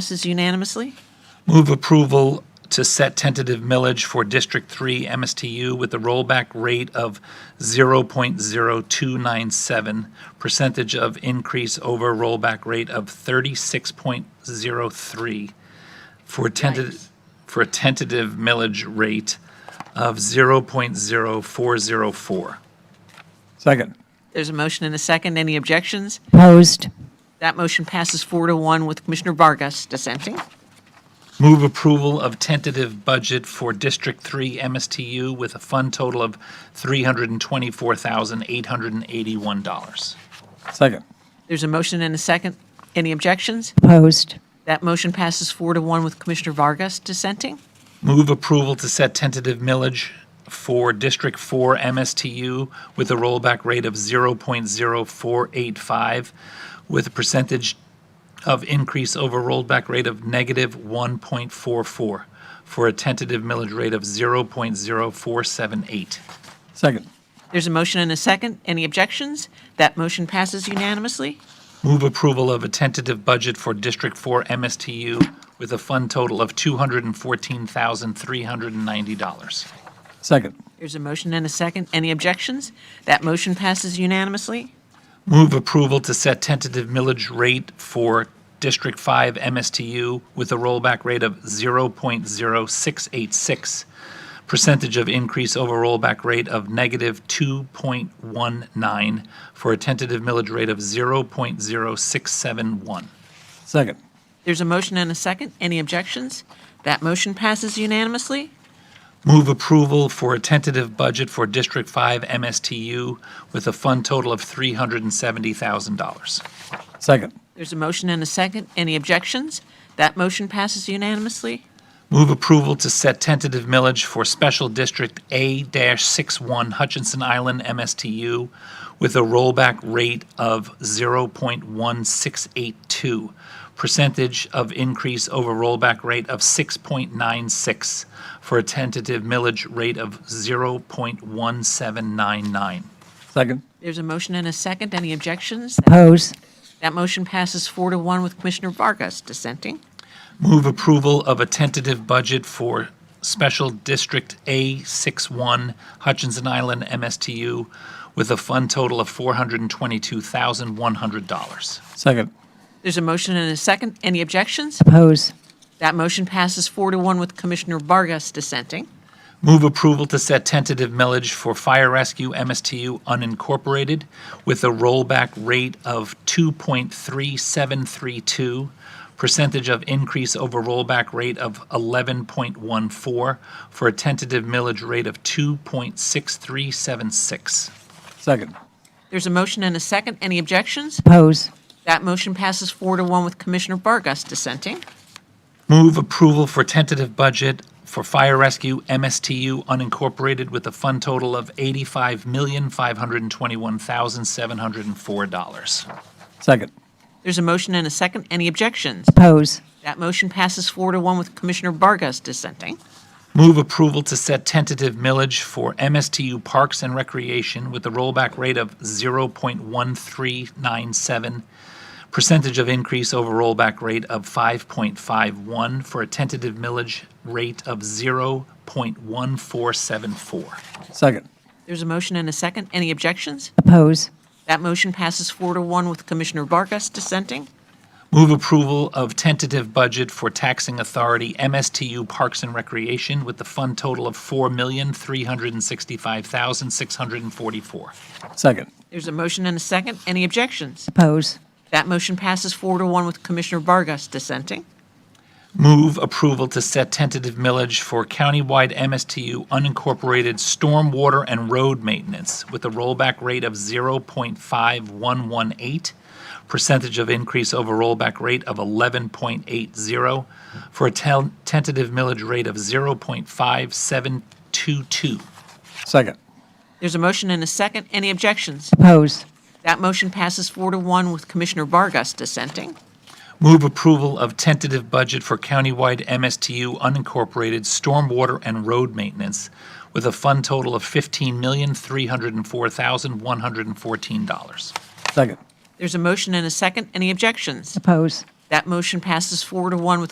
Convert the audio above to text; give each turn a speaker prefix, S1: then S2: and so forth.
S1: Passes unanimously.
S2: Move approval to set tentative millage for District 3 MSTU with a rollback rate of 0.0297, percentage of increase over rollback rate of 36.03 for tentative, for a tentative millage rate of 0.0404.
S3: Second.
S1: There's a motion and a second. Any objections?
S4: Opposed.
S1: That motion passes four to one with Commissioner Vargas dissenting.
S2: Move approval of tentative budget for District 3 MSTU with a fund total of $324,881.
S3: Second.
S1: There's a motion and a second. Any objections?
S4: Opposed.
S1: That motion passes four to one with Commissioner Vargas dissenting.
S2: Move approval to set tentative millage for District 4 MSTU with a rollback rate of 0.0485 with a percentage of increase over rollback rate of negative 1.44 for a tentative millage rate of 0.0478.
S3: Second.
S1: There's a motion and a second. Any objections? That motion passes unanimously.
S2: Move approval of a tentative budget for District 4 MSTU with a fund total of $214,390.
S3: Second.
S1: There's a motion and a second. Any objections? That motion passes unanimously.
S2: Move approval to set tentative millage rate for District 5 MSTU with a rollback rate of 0.0686, percentage of increase over rollback rate of negative 2.19 for a tentative millage rate of 0.0671.
S3: Second.
S1: There's a motion and a second. Any objections? That motion passes unanimously.
S2: Move approval for a tentative budget for District 5 MSTU with a fund total of $370,000.
S3: Second.
S1: There's a motion and a second. Any objections? That motion passes unanimously.
S2: Move approval to set tentative millage for Special District A-61 Hutchinson Island MSTU with a rollback rate of 0.1682, percentage of increase over rollback rate of 6.96 for a tentative millage rate of 0.1799.
S3: Second.
S1: There's a motion and a second. Any objections?
S4: Opposed.
S1: That motion passes four to one with Commissioner Vargas dissenting.
S2: Move approval of a tentative budget for Special District A61 Hutchinson Island MSTU with a fund total of $422,100.
S3: Second.
S1: There's a motion and a second. Any objections?
S4: Opposed.
S1: That motion passes four to one with Commissioner Vargas dissenting.
S2: Move approval to set tentative millage for Fire Rescue MSTU unincorporated with a rollback rate of 2.3732, percentage of increase over rollback rate of 11.14 for a tentative millage rate of 2.6376.
S3: Second.
S1: There's a motion and a second. Any objections?
S4: Opposed.
S1: That motion passes four to one with Commissioner Vargas dissenting.
S2: Move approval for tentative budget for Fire Rescue MSTU unincorporated with a fund total of $85,521,704.
S3: Second.
S1: There's a motion and a second. Any objections?
S4: Opposed.
S1: That motion passes four to one with Commissioner Vargas dissenting.
S2: Move approval to set tentative millage for MSTU Parks and Recreation with a rollback rate of 0.1397, percentage of increase over rollback rate of 5.51 for a tentative millage rate of 0.1474.
S3: Second.
S1: There's a motion and a second. Any objections?
S4: Opposed.
S1: That motion passes four to one with Commissioner Vargas dissenting.
S2: Move approval of tentative budget for taxing authority MSTU Parks and Recreation with the fund total of $4,365,644.
S3: Second.
S1: There's a motion and a second. Any objections?
S4: Opposed.
S1: That motion passes four to one with Commissioner Vargas dissenting.
S2: Move approval to set tentative millage for countywide MSTU unincorporated stormwater and road maintenance with a rollback rate of 0.5118, percentage of increase over rollback rate of 11.80, for a tel- tentative millage rate of 0.5722.
S3: Second.
S1: There's a motion and a second. Any objections?
S4: Opposed.
S1: That motion passes four to one with Commissioner Vargas dissenting.
S2: Move approval of tentative budget for countywide MSTU unincorporated stormwater and road maintenance with a fund total of $15,304,114.
S3: Second.
S1: There's a motion and a second. Any objections?
S4: Opposed.
S1: That motion passes four to one with